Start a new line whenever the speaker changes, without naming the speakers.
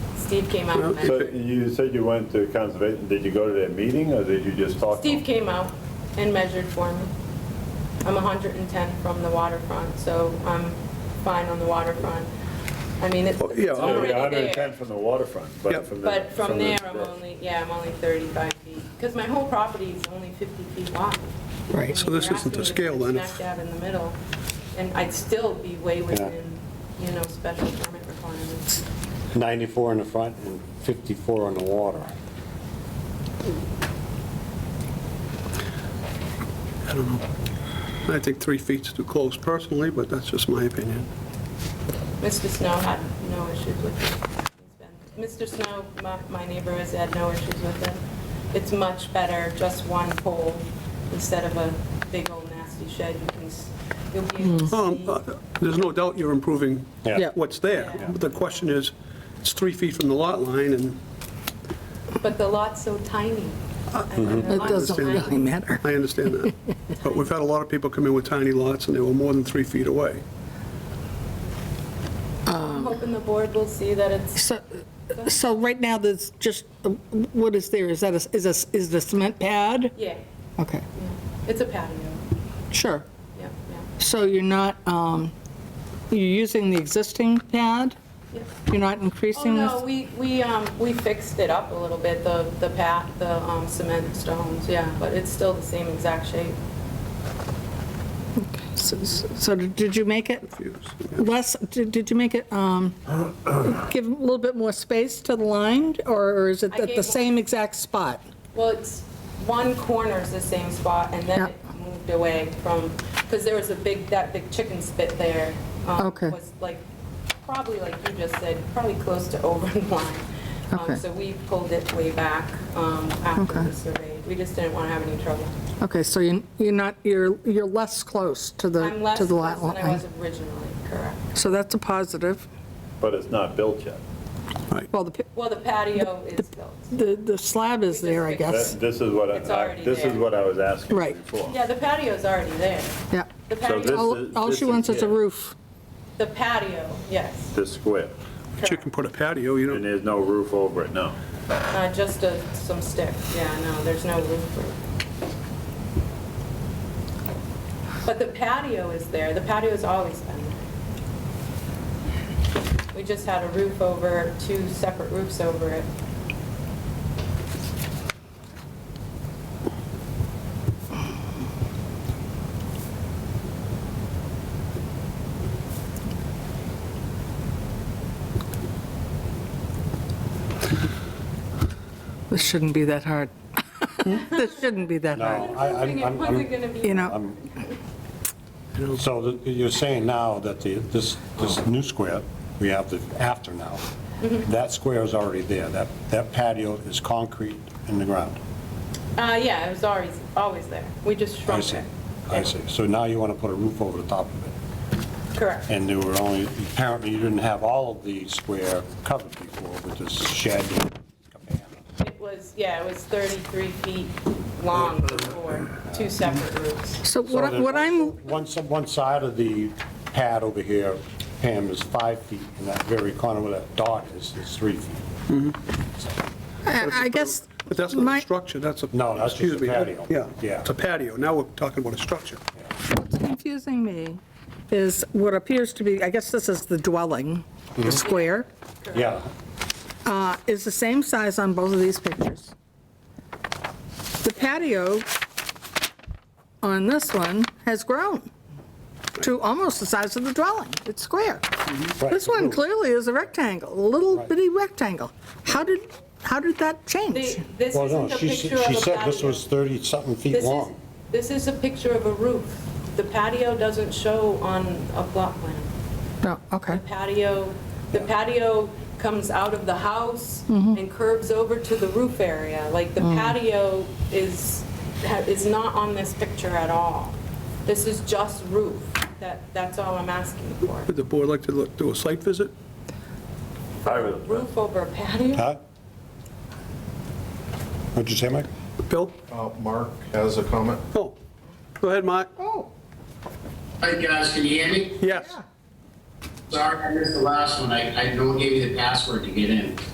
Steve came out and
So
measured.
you said you went to conservation, did you go to that meeting or did you just talk? to
Steve
them?
came out and measured for me. I'm 110 from the waterfront, so I'm fine on the waterfront. I mean, it's
Oh, yeah,
it's
I'm-
Yeah,
already
you're
there.
110 from the waterfront,
Yep.
but from the.
But from
the-
there, I'm only, yeah, I'm only 35 feet, because my whole property is only 50 feet wide.
Right, so
I mean,
this
you're
isn't
asking
a
me to
scale
put
then.
Smack dab in the middle, and I'd still be way within, you know, special permit requirements.
94 in the front and 54 on the water.
I don't know. I think three feet's too close personally, but that's just my opinion.
Mr. Snow had no issues with it. He's been- Mr. Snow, my- my neighbor, has had no issues with it. It's much better, just one pole instead of a big old nasty shed. You can, s- you'll be able to
Um, uh,
see.
There's no doubt you're improving
Yeah. Yeah.
what's there.
Yeah.
The question is, it's three feet from the lot line, and
But the lot's so tiny. It
It doesn't really matter.
I understand that. But we've had a lot of people come in with tiny lots, and they were more than three feet away.
I'm hoping the board will see that it's,
So, so right now, there's just, what is there? Is that, a- is a, is the cement pad?
yeah,
Okay,
yeah. it's a patio.
sure.
Yeah, yeah,
So you're not, um, you're using the existing pad?
yeah.
You're not increasing this?
Oh, no, we, we, um, we fixed it up a little bit, the, the pat, the, um, cement stones, yeah, but it's still the same exact shape.
So- So did you make it
Views.
less, did did you make it, um, give a little bit more space to the line, or is it
I
at the
gave-
same exact spot?
Well, it's, one corner's the same spot, and then
Yeah.
it moved away from, because there was a big, that big chicken spit there. um,
Okay.
Was like, probably like you just said, probably close to over the line. Um,
Okay.
So we pulled it way back um, after
Okay.
we surveyed. We just didn't want to have any trouble.
Okay, so you- you're not, you're, you're less close to the,
I'm less
to
than
the lot
I
line.
was originally, correct.
So that's a positive.
But it's not built yet.
Well, the,
Well, the patio is built.
the the slab is there, I guess.
That- This is what,
It's
I- I-
already
this is
there.
what I was asking
Right.
before.
Yeah, the patio's already there.
Yeah.
The
So this
patio,
is-
All all
this
she wants is a
it,
roof.
the patio, yes.
This square,
But you can put a patio, you
and
know,
there's no roof over it, no.
Uh, Just a- some sticks, yeah, no, there's no roof for it. But the patio is there, the patio's always been there. We just had a roof over, two separate roofs over it.
This shouldn't be that hard. This shouldn't be that
No,
hard,
I- I'm, I'm-
When's it
I'm,
gonna be?
you know?
so th- you're saying now that the, this, this new square, we have the after now, that square is already there, that, that patio is concrete in the ground.
Uh, yeah, it was always, always there. We just
I
shrunk
see,
it.
I see. So now you want to put a roof over the top of it,
Correct.
and there were only, apparently you didn't have all of the square covered before with this shed and cabana.
It was, yeah, it was 33 feet long before, two separate roofs.
So what I-
So
what
that-
I'm,
One, s- one side of the pad over here, Pam, is five feet, and that very corner where that dot is, is three feet. So,
I I guess,
but that's not
my,
a structure, that's a...
No, that's just a
excuse me,
patio.
Yeah,
Yeah.
it's a patio. Now we're talking about a structure.
what's confusing me is what appears to be, I guess this is the dwelling,
Mm-hmm.
the square,
Yeah,
uh, is the same size on both of these pictures. The patio on this one has grown to almost the size of the dwelling. It's square.
right,
This
the
one
roof.
clearly is a rectangle, a little bitty rectangle. How did, how did that change?
The- This
Well, no,
isn't a
she,
picture of a
she said this
patio.
was 30-something feet
This is-
long.
This is a picture of a roof. The patio doesn't show on a plot plan.
No, okay.
Patio, the patio comes out of the house and curves over to the roof area. Like, the patio is, ha- is not on this picture at all. This is just roof. That, that's all I'm asking for.
Would the board like to look, do a site visit?
I was-
Roof over a patio?
Huh? What'd you say, Mike?
Bill?
Oh.
Uh, Mark has a comment.
Oh, go ahead, Mark.
Hi guys, can you hear me?
Yes.
Sorry, I missed the last one. I, I, no one gave me the password to get in.